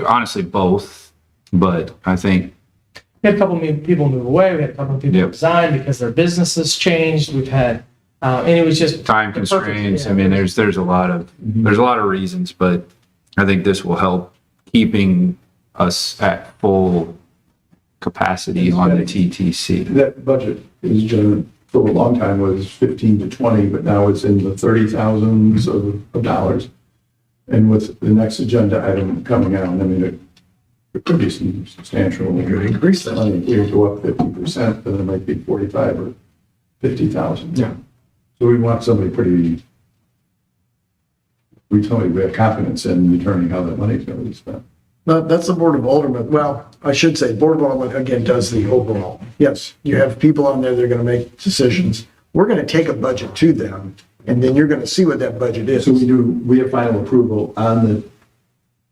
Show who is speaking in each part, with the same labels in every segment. Speaker 1: honestly both, but I think
Speaker 2: We had a couple of people move away. We had a couple of people
Speaker 1: Yep.
Speaker 2: resign because their businesses changed. We've had, uh, and it was just
Speaker 1: time
Speaker 2: the perfect-
Speaker 1: constraints. I
Speaker 2: yeah.
Speaker 1: mean, there's there's a lot of there's a lot of reasons, but I think this will help keeping us at full capacity on the TTC.
Speaker 3: That budget is generally, for a long time was fifteen to twenty, but now it's in the thirty thousands of, of dollars. And with the next agenda item coming out, I mean, it, it could be some substantial. Increase that. If we go up fifty percent, then it might be forty-five or fifty thousand. Yeah. So we want somebody pretty, we tell you we have confidence in determining how that money's gonna be spent.
Speaker 4: No, that's the Board of Aldermen. Well, I should say, Board of Aldermen, again, does the overall. Yes, you have people on there that are going to make decisions. We're going to take a budget to them, and then you're going to see what that budget is.
Speaker 3: So we do, we have final approval on the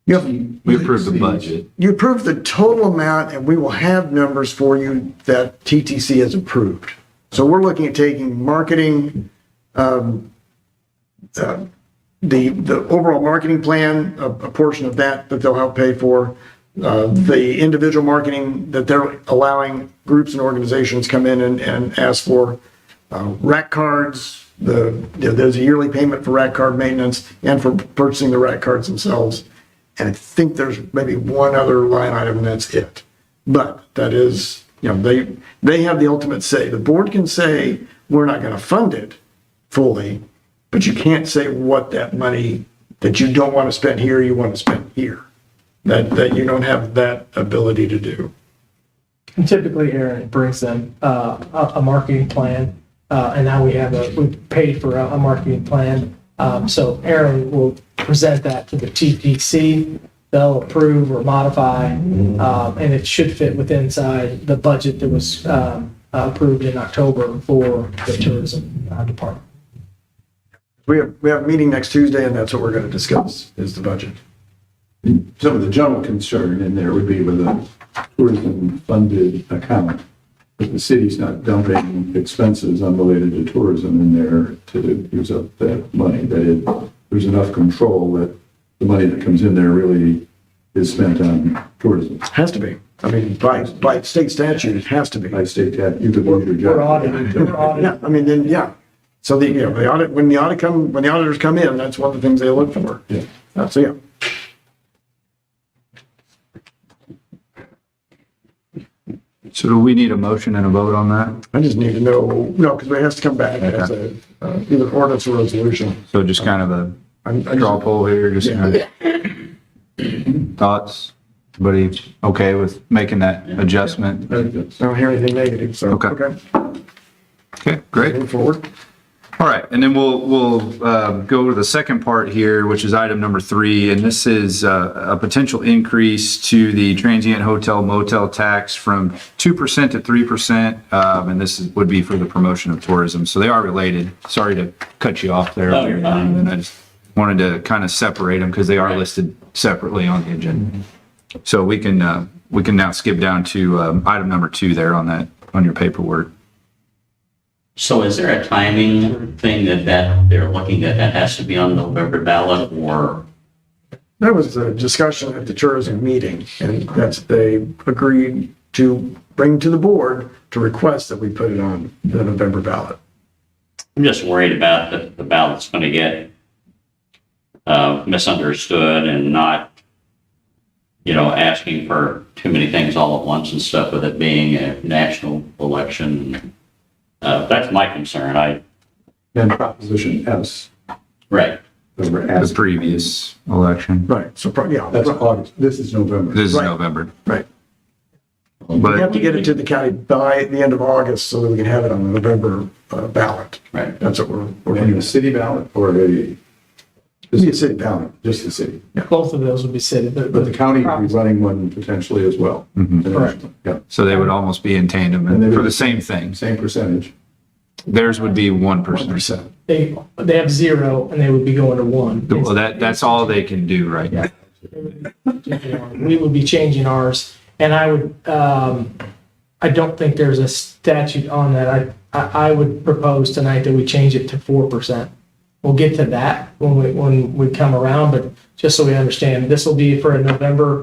Speaker 4: You have-
Speaker 1: We approved the budget.
Speaker 4: you approve the total amount, and we will have numbers for you that TTC has approved. So we're looking at taking marketing, um, uh, the, the overall marketing plan, a, a portion of that that they'll help pay for, uh, the individual marketing that they're allowing groups and organizations come in and, and ask for, uh, rack cards, the, there's a yearly payment for rack card maintenance and for purchasing the rack cards themselves. And I think there's maybe one other line item and that's it. But that is, you know, they, they have the ultimate say. The board can say, we're not going to fund it fully, but you can't say what that money that you don't want to spend here, you want to spend here. That, that you don't have that ability to do.
Speaker 2: And typically, Aaron brings them uh, a, a marketing plan, uh, and now we have a we paid for a, a marketing plan. Um, so Aaron will present that to the TPC. They'll approve or modify, um, and it should fit with inside the budget that was um, approved in October for the tourism uh, department.
Speaker 4: We have, we have a meeting next Tuesday and that's what we're going to discuss is the budget.
Speaker 3: some of the general concern in there would be with a tourism-funded account. But the city's not dumping expenses unrelated to tourism in there to use up that money, that it, there's enough control that the money that comes in there really is spent on tourism.
Speaker 4: Has to be. I mean, by, by state statute, it has to be.
Speaker 3: I state that, you could lose your job.
Speaker 2: We're audited. We're audited.
Speaker 4: Yeah, I mean, then, yeah. So the, you know, the audit, when the audit come, when the auditors come in, that's one of the things they look for.
Speaker 3: Yeah.
Speaker 4: Uh, So, yeah.
Speaker 1: So do we need a motion and a vote on that?
Speaker 4: I just need to know, no, because it has to come back as a, uh, either ordinance or resolution.
Speaker 1: So just kind of a
Speaker 4: I'm- I
Speaker 1: draw
Speaker 4: just-
Speaker 1: poll here, just kind of thoughts. Everybody okay with making that adjustment?
Speaker 3: I think that's-
Speaker 4: I don't hear anything negative, so.
Speaker 1: Okay. Okay, great.
Speaker 4: Move forward.
Speaker 1: All right, and then we'll, we'll uh, go to the second part here, which is item number three, and this is uh, a potential increase to the transient hotel motel tax from 2% to 3%, um, and this is- would be for the promotion of tourism. So they are related. Sorry to cut you off there.
Speaker 5: No, you're fine.
Speaker 1: And I just wanted to kind of separate them because they are listed separately on the agenda. So we can, uh, we can now skip down to um, item number two there on that, on your paperwork.
Speaker 5: So is there a timing thing that that, they're looking at, that has to be on November ballot or?
Speaker 4: There was a discussion at the tourism meeting, and that's, they agreed to bring to the board to request that we put it on the November ballot.
Speaker 5: I'm just worried about that the ballot's going to get uh, misunderstood and not, you know, asking for too many things all at once and stuff with it being a national election. Uh, That's my concern. I,
Speaker 3: And Proposition S,
Speaker 5: right.
Speaker 3: that we're
Speaker 1: The
Speaker 3: asking,
Speaker 1: previous election.
Speaker 4: Right, so, pro- yeah,
Speaker 3: that's August, this is November.
Speaker 1: This is
Speaker 4: Right.
Speaker 1: November,
Speaker 4: right. We have
Speaker 1: but
Speaker 4: to get it to the county by the end of August so that we can have it on the November uh, ballot.
Speaker 5: Right.
Speaker 4: That's what we're, we're
Speaker 3: And a
Speaker 4: doing.
Speaker 3: city ballot or a?
Speaker 4: Be a city ballot.
Speaker 3: Just the city.
Speaker 2: Both of those would be city.
Speaker 3: But the county would be running one potentially as well.
Speaker 2: Correct.
Speaker 3: Yeah,
Speaker 1: so they would almost be in tandem
Speaker 3: And they
Speaker 1: and
Speaker 3: would-
Speaker 1: for the same things.
Speaker 3: same percentage.
Speaker 1: Theirs would be one percent.
Speaker 4: Percent.
Speaker 2: They they have zero, and they would be going to one.
Speaker 1: Well, that, that's all they can do right now.
Speaker 2: we would be changing ours. And I would, um, I don't think there's a statute on that. I, I, I would propose tonight that we change it to four percent. We'll get to that when we, when we come around, but just so we understand, this will be for a November